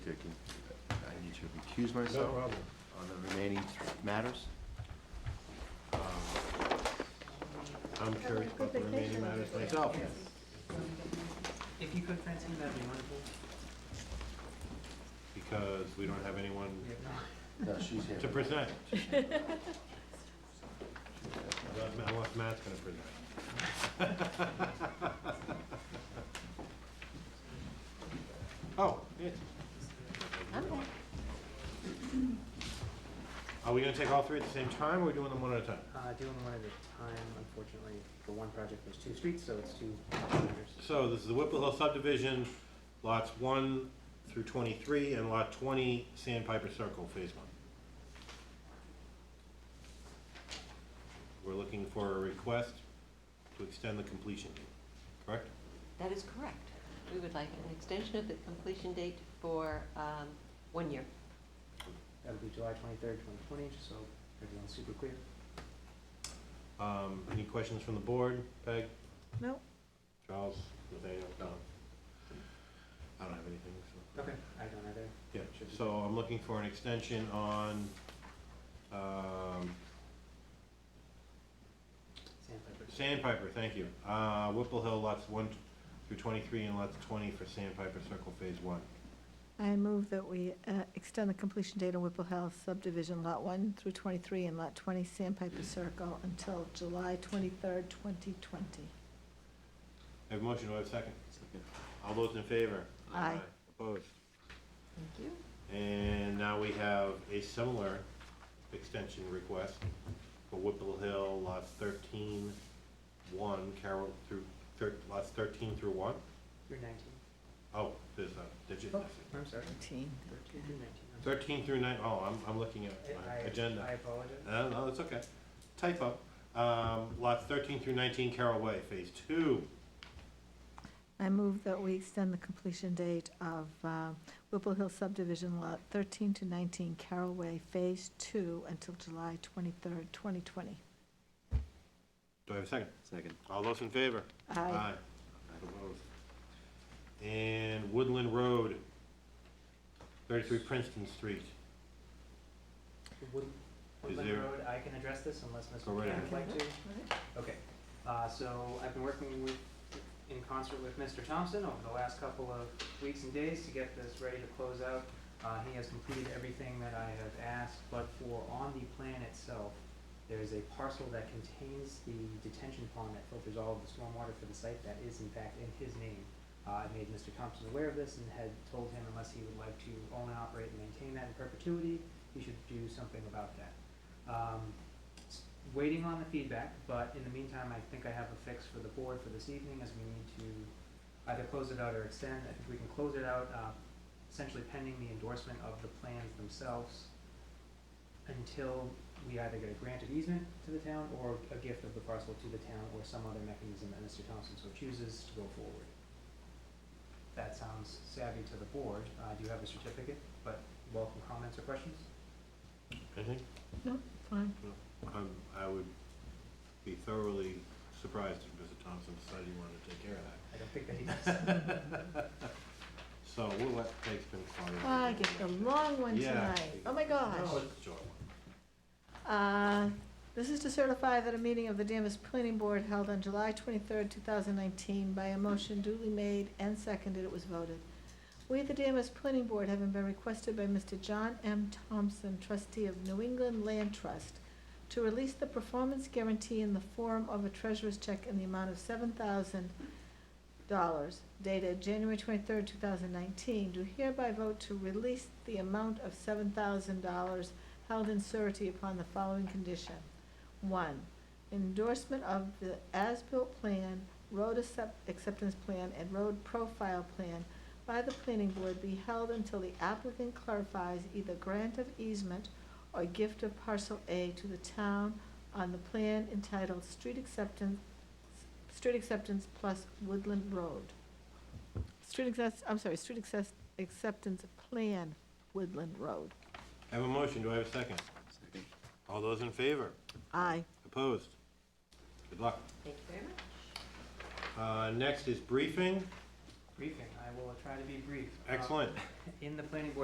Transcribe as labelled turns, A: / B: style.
A: recuse myself
B: problem.
A: on the remaining matters?
B: um, I'm curious about the remaining matters myself.
C: If you could, Francine, that'd be wonderful.
B: Because we don't have anyone
C: We have not.
A: No, she's here.
B: to present. Unless Ma- unless Matt's gonna present. Oh, Nancy. Are we gonna take all three at the same time, or are we doing them one at a time?
C: Uh, doing one at a time, unfortunately, for one project, there's two streets, so it's two matters.
B: So this is the Whipple Hill subdivision, lots one through twenty-three, and lot twenty, Sandpiper Circle, phase one. We're looking for a request to extend the completion date, correct?
D: That is correct. We would like an extension of the completion date for um, one year.
C: That'll be July twenty-third, twenty twenty, just so everyone's super clear.
B: Um, any questions from the board? Peg,
D: No.
B: Charles, Nathaniel, Don? I don't have anything, so.
C: Okay. I don't either.
B: Yeah, so I'm looking for an extension on, um,
C: Sandpiper.
B: Sandpiper, thank you. Uh, Whipple Hill lots one through twenty-three and lots twenty for Sandpiper Circle Phase One.
E: I move that we uh, extend the completion date on Whipple Hill subdivision, Lot 1 through 23 and Lot 20 Sandpiper Circle until July 23rd, 2020.
B: I have a motion, do I have a second? All those in favor?
E: Aye.
B: Opposed?
D: Thank you.
B: And now we have a similar extension request for Whipple Hill lots thirteen, one, Carroll through, thir- lots thirteen through one?
C: Through nineteen. Oh,
B: Oh, there's a digit missing.
C: I'm sorry.
E: 19.
C: Thirteen through nineteen. I'm sorry.
B: Thirteen through nine, oh, I'm, I'm looking at my
C: I- I-
B: agenda.
C: I apologize.
B: No, Uh, no, it's okay. Typo. Um, lots thirteen through nineteen Carroll Way, phase two.
E: I move that we extend the completion date of uh, Whipple Hill subdivision, Lot 13 to 19 Carroll Way, Phase 2, until July 23rd, 2020.
B: Do I have a second?
A: Second.
B: All those in favor?
E: Aye.
B: Opposed. And Woodland Road, thirty-three Princeton Street.
C: Wood- Woodland
B: there-
C: Road, I can address this unless Mr.
B: Go right
C: McCann
B: ahead.
C: would like to. Okay, uh, so I've been working with, in concert with Mr. Thompson over the last couple of weeks and days to get this ready to close out. Uh, he has completed everything that I have asked, but for on the plan itself, there is a parcel that contains the detention pond that filters all of the stormwater for the site that is in fact in his name. Uh, I made Mr. Thompson aware of this and had told him unless he would like to own, operate, and maintain that in perpetuity, he should do something about that. Um, s- waiting on the feedback, but in the meantime, I think I have a fix for the board for this evening, as we need to either close it out or extend. I think we can close it out, uh, essentially pending the endorsement of the plans themselves until we either get a granted easement to the town or a gift of the parcel to the town or some other mechanism that Mr. Thompson so chooses to go forward. That sounds savvy to the board. Uh, do you have a certificate? But welcome comments or questions?
B: I think,
E: No, fine.
B: um, I would be thoroughly surprised if Mr. Thompson decided he wanted to take care of that.
C: I don't think that he does.
B: So we'll let Peg spin the
E: Well, I get the long one
B: Yeah.
E: tonight. Oh, my gosh.
B: No, it's a short one.
E: Uh, This is to certify that a meeting of the Danvers Planning Board held on July twenty-third, two thousand nineteen, by a motion duly made and seconded, it was voted. We, the Danvers Planning Board, having been requested by Mr. John M. Thompson, trustee of New England Land Trust, to release the performance guarantee in the form of a treasurer's check in the amount of seven thousand dollars dated January twenty-third, two thousand nineteen, do hereby vote to release the amount of seven thousand dollars held in surety upon the following condition. One, endorsement of the as-built plan, road accept- acceptance plan, and road profile plan by the planning board be held until the applicant clarifies either grant of easement or gift of parcel A to the town on the plan entitled Street Acceptance, Street Acceptance plus Woodland Road. Street access, I'm sorry, Street access, Acceptance Plan, Woodland Road.
B: I have a motion, do I have a second?
A: Second.
B: All those in favor?
E: Aye.
B: Opposed? Good luck.
D: Thank you very
B: Uh,
D: much.
B: next is briefing,
C: Briefing, I will try to be brief. Uh,
B: excellent.
C: In the planning board